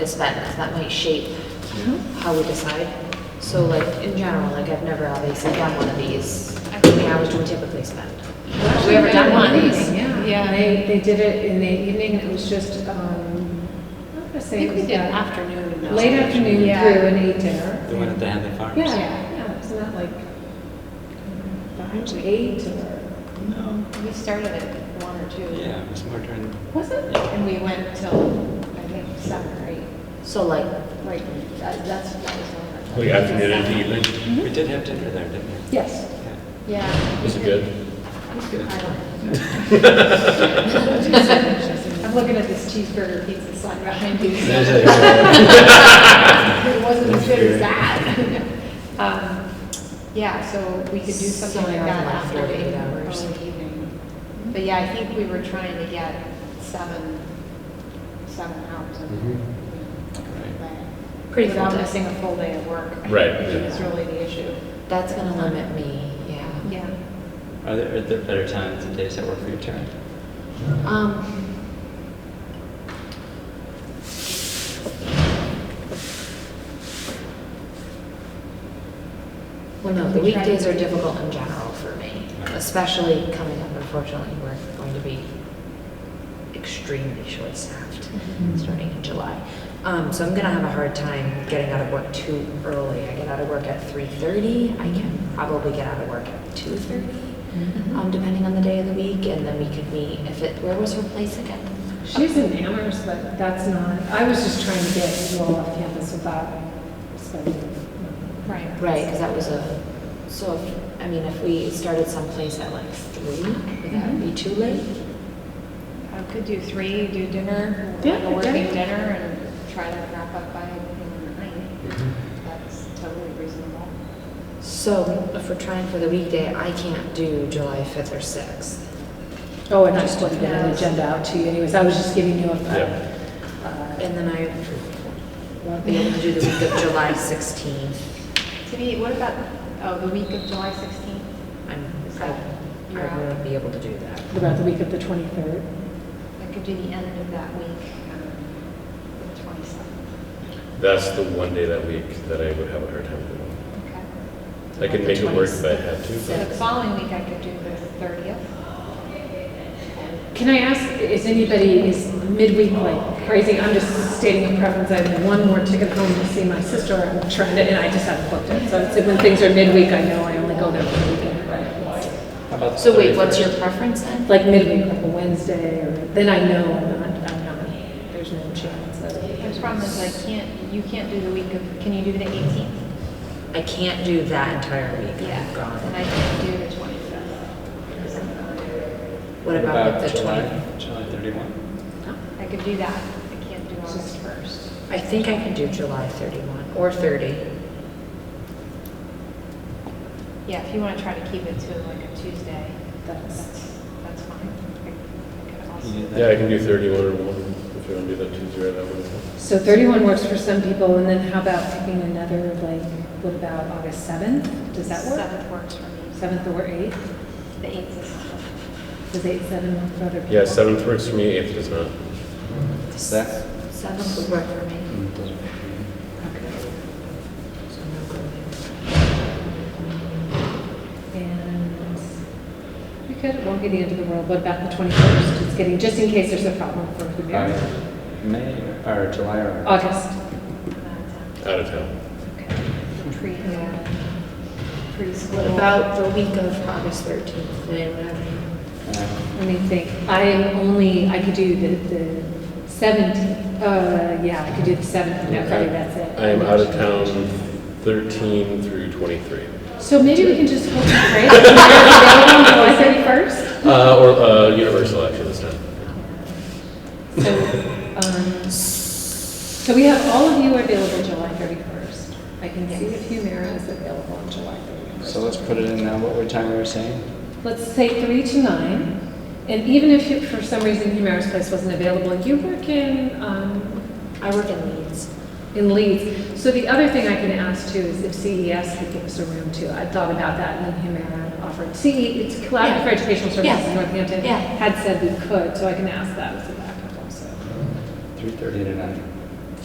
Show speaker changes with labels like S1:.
S1: this event, because that might shape how we decide. So like, in general, like, I've never obviously done one of these. How many hours do we typically spend? Have we ever done one of these?
S2: Yeah,
S3: Yeah,
S2: they, they did it in the evening, it was just, um, I'm gonna
S3: I
S2: say it
S3: think we
S2: was
S3: did
S2: uh,
S3: afternoon. though.
S2: late afternoon through
S3: Yeah.
S2: and ate dinner.
S4: The one at the Hadley Farms?
S2: Yeah, yeah, it's not like five to eight or,
S4: No.
S3: We started at one or two.
S4: Yeah, it was more during,
S2: was it?
S3: And we went till, I think, seven or eight,
S1: So like,
S3: like, that- that's, that was one.
S5: Like afternoon and
S4: we
S5: evening?
S1: Mm-hmm.
S4: did have dinner there, didn't we?
S2: Yes.
S4: Yeah.
S3: Yeah.
S5: Was it good?
S3: I'm looking at this cheeseburger pizza sign behind you. so-
S4: There's a-
S3: It wasn't as good as that. Um, Yeah, so we could do something like
S1: Somewhere
S3: that
S1: around
S3: after
S1: forty-eight
S3: eight
S1: hours.
S3: hours evening. But yeah, I think we were trying to get seven, seven hours of.
S4: Mhm.
S5: Mm-hmm.
S1: Pretty full
S3: Without
S1: day.
S3: missing a full day of work.
S5: Right, yeah.
S3: Is really the issue.
S1: that's gonna limit me, yeah.
S3: Yeah.
S4: Are there, are there better times and days that work for your turn?
S1: Um. Well, no, the
S3: We tried
S1: weekdays
S3: to-
S1: are difficult in general for me,
S4: Okay.
S1: especially coming up, unfortunately, we're going to be extremely short-staffed starting in July. Um, so I'm gonna have a hard time getting out of work too early. I get out of work at three thirty. I can probably get out of work at two thirty, um, depending on the day of the week, and then we could meet if it. Where was her place again?
S2: She's in Amherst, but that's not, I was just trying to get you all off campus without spending. money.
S3: Right.
S1: Right, because that was a. So if, I mean, if we started someplace at like three, would that be too late?
S3: I could do three, do dinner,
S2: Yeah,
S3: like a working
S2: yeah.
S3: dinner, and try to wrap up by nine. That's totally reasonable.
S1: So if we're trying for the weekday, I can't do July fifth or sixth.
S2: Oh, and I still didn't get an agenda out to you anyways, I was just giving you a,
S5: Yeah.
S2: uh,
S1: And then I won't be able to do the week of July 16th.
S3: To me, what about, oh, the week of July 16th?
S1: I'm, I,
S3: You're
S1: I
S3: out.
S1: won't be able to do that.
S2: about the week of the 23rd.
S3: I could do the end of that week, um, the 27th.
S5: That's the one day that week that I would have a hard time doing.
S3: Okay.
S5: I could make it work if I had to,
S3: So the
S5: but
S3: following week, I could do the 30th.
S2: Can I ask, is anybody, is midweek like crazy? I'm just stating a preference, I have one more ticket home to see my sister, I'm trying to, and I just haven't booked it. So it's when things are midweek, I know I only go there for the weekend, but
S4: How about the
S1: So wait, what's your
S4: 31st?
S1: preference then?
S2: like midweek, like a Wednesday, or, then I know I'm not, I'm not, there's no chance that.
S3: The problem is I can't, you can't do the week of, can you do the 18th?
S1: I can't do that entire week. I'm
S3: Yeah. And I
S1: gone.
S3: can do the 27th.
S1: What about like the
S4: July,
S1: 20?
S4: July 31?
S3: I could do that. I can't do August 1st.
S1: I think I can do July 31 or 30.
S3: Yeah, if you want to try to keep it to like a Tuesday,
S2: That's-
S3: that's, that's fine. I- I could
S4: Can you
S3: also-
S4: do that?
S5: yeah, I can do 31 or 1 if you want to do that Tuesday or that one.
S2: So 31 works for some people, and then how about picking another, like, what about August 7th? Does that work?
S3: Seventh works for me.
S2: 7th or 8th?
S3: The 8th is,
S2: Does 8, 7 work for other people?
S5: Yeah, 7th works for me, 8th does not.
S4: Six?
S1: Seventh would work for me.
S4: Mm, doesn't work for me.
S1: So no go there.
S2: And we could, it won't be the end of the world, what about the 21st? It's getting, just in case there's a problem for who married.
S4: Uh, May or July or?
S2: August.
S3: uh,
S5: Out of town.
S3: pre,
S1: Yeah.
S3: pre
S1: What about the week of August 13th? Would anyone have any-
S4: Uh,
S2: Let me think, I am only, I could do the the 17th, uh, yeah, I could do the 7th, no, probably that's it.
S5: I am out of town 13 through 23.
S2: So maybe we can just hold the break, July 31st?
S5: Uh, or, uh, Universal actually this time.
S2: So, um, so we have, all of you are available July 31st. I can see a few mirrors available on July 31st.
S4: So let's put it in now, what were time we were saying?
S2: let's say three to nine, and even if you- for some reason Humira's Place wasn't available, you work in, um,
S1: I work in Leeds.
S2: in Leeds. So the other thing I can ask too is if CES could give us a room too. I thought about that and then Humira offered, CE, it's Collaborative for
S1: Yeah.
S2: Educational Services
S1: Yeah.
S2: in Northampton,
S1: Yeah.
S2: had said we could, so I can ask that as a backup also.
S4: 3:30 to 9.